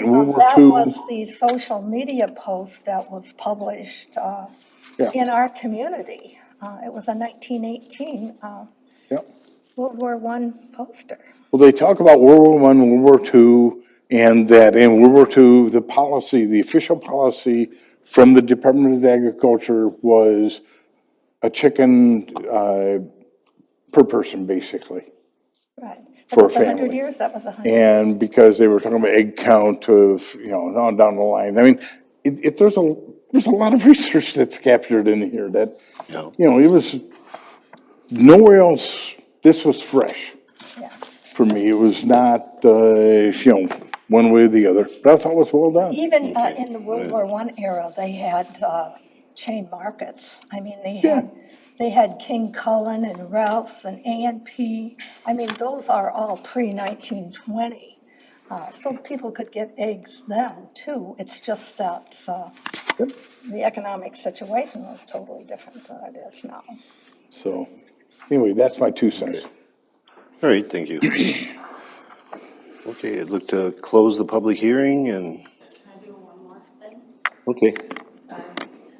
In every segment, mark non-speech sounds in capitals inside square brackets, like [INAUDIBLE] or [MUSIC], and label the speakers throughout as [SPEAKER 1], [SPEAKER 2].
[SPEAKER 1] mean, World War
[SPEAKER 2] That was
[SPEAKER 1] II,
[SPEAKER 2] the social media post that was published uh,
[SPEAKER 1] Yeah.
[SPEAKER 2] in our community. Uh, It was a 1918 uh,
[SPEAKER 1] yeah.
[SPEAKER 2] World War One poster.
[SPEAKER 1] Well, they talk about World War One, World War Two, and that in World War Two, the policy, the official policy from the Department of Agriculture was a chicken, uh, per person, basically.
[SPEAKER 2] Right.
[SPEAKER 1] For a
[SPEAKER 2] That was 100
[SPEAKER 1] family.
[SPEAKER 2] years, that was 100.
[SPEAKER 1] And because they were talking about egg count of, you know, and on down the line, I mean, it, it, there's a, there's a lot of [LAUGHS] research that's captured in here that, you know, it was, nowhere else, this was fresh
[SPEAKER 2] yeah.
[SPEAKER 1] for me. It was not, uh, you know, one way or the other, but I thought it was well done.
[SPEAKER 2] Even uh, in the World War One era, they had uh, chain markets. I mean, they
[SPEAKER 1] Yeah.
[SPEAKER 2] had, they had King Cullen and Ralph's and A and P. I mean, those are all pre-1920. So people could get eggs then, too. It's just that uh, the economic situation was totally different than it is now.
[SPEAKER 1] So, anyway, that's my two cents.
[SPEAKER 3] All right, thank you. [CLEARS THROAT] Okay, I'd look to close the public hearing and,
[SPEAKER 4] Can I do one more thing?
[SPEAKER 3] okay.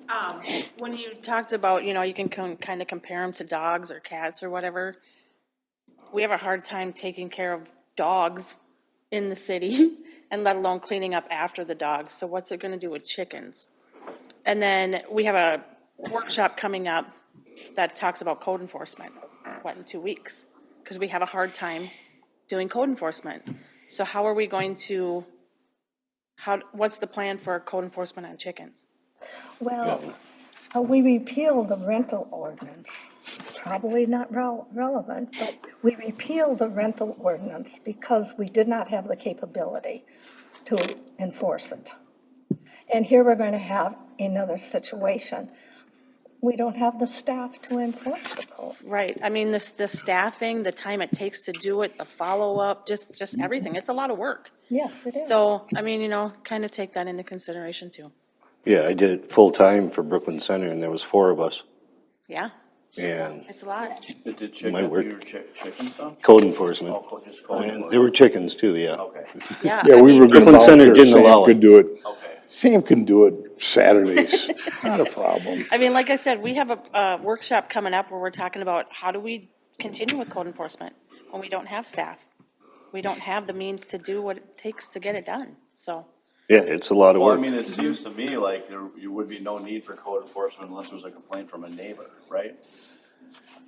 [SPEAKER 4] Um, when you talked about, you know, you can kind of compare them to dogs or cats or whatever. We have a hard time taking care of dogs in the city [LAUGHS] and let alone cleaning up after the dogs. So what's it going to do with chickens? And then we have a workshop coming up that talks about code enforcement, what, in two weeks? Because we have a hard time doing code enforcement. So how are we going to, how, what's the plan for code enforcement on chickens?
[SPEAKER 2] Well, uh, we repealed the rental ordinance, probably not rel- relevant, but we repealed the rental ordinance because we did not have the capability to enforce it. And here we're going to have another situation. We don't have the staff to enforce the code.
[SPEAKER 4] Right, I mean, this, the staffing, the time it takes to do it, the follow-up, just, just everything, it's a lot of work.
[SPEAKER 2] Yes, it is.
[SPEAKER 4] So, I mean, you know, kind of take that into consideration too,
[SPEAKER 3] Yeah, I did it full-time for Brooklyn Center and there was four of us.
[SPEAKER 4] yeah,
[SPEAKER 3] And
[SPEAKER 4] it's a lot.
[SPEAKER 5] It did chicken,
[SPEAKER 3] Might
[SPEAKER 5] you
[SPEAKER 3] work.
[SPEAKER 5] were chick, chicken stuff?
[SPEAKER 3] code enforcement.
[SPEAKER 5] Oh, cool, just call it
[SPEAKER 3] And
[SPEAKER 5] work.
[SPEAKER 3] there were chickens too, yeah.
[SPEAKER 5] Okay,
[SPEAKER 4] Yeah,
[SPEAKER 1] Yeah,
[SPEAKER 4] I
[SPEAKER 1] we
[SPEAKER 4] mean,
[SPEAKER 1] were gonna
[SPEAKER 3] Brooklyn Center
[SPEAKER 1] volunteer.
[SPEAKER 3] didn't allow
[SPEAKER 1] Sam could
[SPEAKER 3] it.
[SPEAKER 1] do it.
[SPEAKER 5] okay.
[SPEAKER 1] Sam can do it [LAUGHS] Saturdays, not a problem.
[SPEAKER 4] I mean, like I said, we have a, a workshop coming up where we're talking about how do we continue with code enforcement when we don't have staff? We don't have the means to do what it takes to get it done, so,
[SPEAKER 3] Yeah, it's a lot of
[SPEAKER 5] Well, I
[SPEAKER 3] work.
[SPEAKER 5] mean, it seems to me like there, you would be no need for code enforcement unless there's a complaint from a neighbor, right?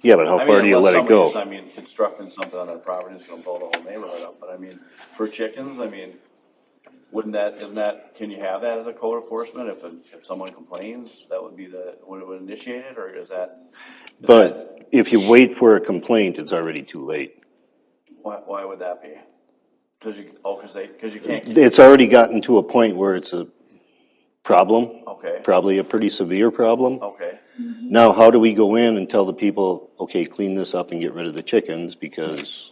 [SPEAKER 3] Yeah, but how
[SPEAKER 5] I
[SPEAKER 3] far
[SPEAKER 5] mean,
[SPEAKER 3] do you
[SPEAKER 5] unless
[SPEAKER 3] let it
[SPEAKER 5] somebody's, I
[SPEAKER 3] go?
[SPEAKER 5] mean, constructing something on their property is gonna blow the whole neighborhood up, but I mean, for chickens, I mean, wouldn't that, isn't that, can you have that as a code enforcement if, a- if someone complains, that would be the, would it initiate it, or is that? is that-
[SPEAKER 3] But if you wait for a complaint, it's already too late.
[SPEAKER 5] Why, why would that be? Cause you, oh, cause they, cause you can't.
[SPEAKER 3] It's already gotten to a point where it's a problem.
[SPEAKER 5] Okay.
[SPEAKER 3] Probably a pretty severe problem.
[SPEAKER 5] Okay,
[SPEAKER 3] Now, how do we go in and tell the people, okay, clean this up and get rid of the chickens because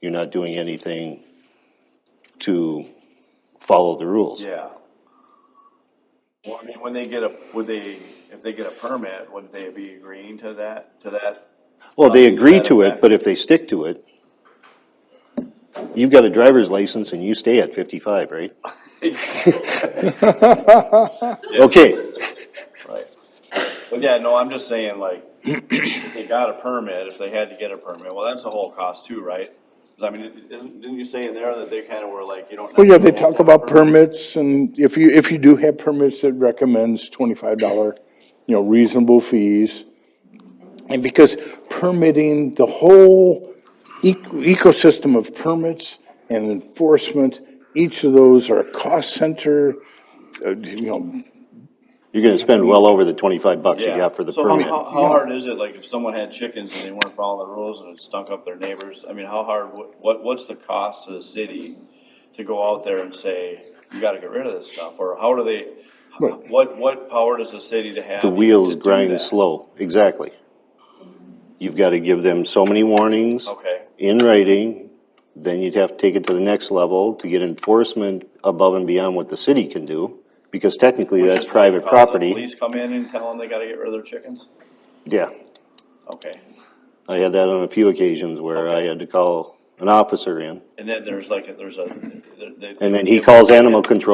[SPEAKER 3] you're not doing anything to follow the rules?
[SPEAKER 5] yeah. Well, I mean, when they get a, would they, if they get a permit, would they be agreeing to that, to that?
[SPEAKER 3] Well, they
[SPEAKER 5] Um,
[SPEAKER 3] agree
[SPEAKER 5] that
[SPEAKER 3] to it,
[SPEAKER 5] effect.
[SPEAKER 3] but if they stick to it, you've got a driver's license and you stay at fifty-five, right? Okay,
[SPEAKER 5] Right. But yeah, no, I'm just saying like, if they got a permit, if they had to get a permit, well, that's a whole cost too, right? 'Cause I mean, it- didn't, didn't you say in there that they kind of were like, you don't.
[SPEAKER 1] Well, yeah, they
[SPEAKER 5] necessarily
[SPEAKER 1] talk
[SPEAKER 5] have to have a
[SPEAKER 1] about permits and if you, if you do have permits, it recommends twenty-five dollar, you know, reasonable fees. And because permitting, the whole ec- ecosystem of permits and enforcement, each of those are a cost center, uh, you know,
[SPEAKER 3] you're gonna spend well over the twenty-five bucks you
[SPEAKER 5] Yeah.
[SPEAKER 3] got for the
[SPEAKER 5] So how- How,
[SPEAKER 3] permit.
[SPEAKER 5] how hard is it, like, if someone had chickens and they weren't following the rules and it stunk up their neighbors? I mean, how hard, what- what, what's the cost to the city to go out there and say, you gotta get rid of this stuff? Or how do they, what, what power does the city to have?
[SPEAKER 3] The
[SPEAKER 5] even
[SPEAKER 3] wheels
[SPEAKER 5] to do
[SPEAKER 3] grind
[SPEAKER 5] that?
[SPEAKER 3] slow, exactly. You've gotta give them so many warnings.
[SPEAKER 5] Okay,
[SPEAKER 3] in writing, then you'd have to take it to the next level to get enforcement above and beyond what the city can do, because technically that's
[SPEAKER 5] Just
[SPEAKER 3] private
[SPEAKER 5] call the
[SPEAKER 3] property.
[SPEAKER 5] Police come in and tell them they gotta get rid of their chickens?
[SPEAKER 3] Yeah,
[SPEAKER 5] Okay,
[SPEAKER 3] I had that on a few occasions where I had to call
[SPEAKER 5] an officer in,
[SPEAKER 3] And then there's like, a- there's a. they- they-
[SPEAKER 5] and then he calls animal control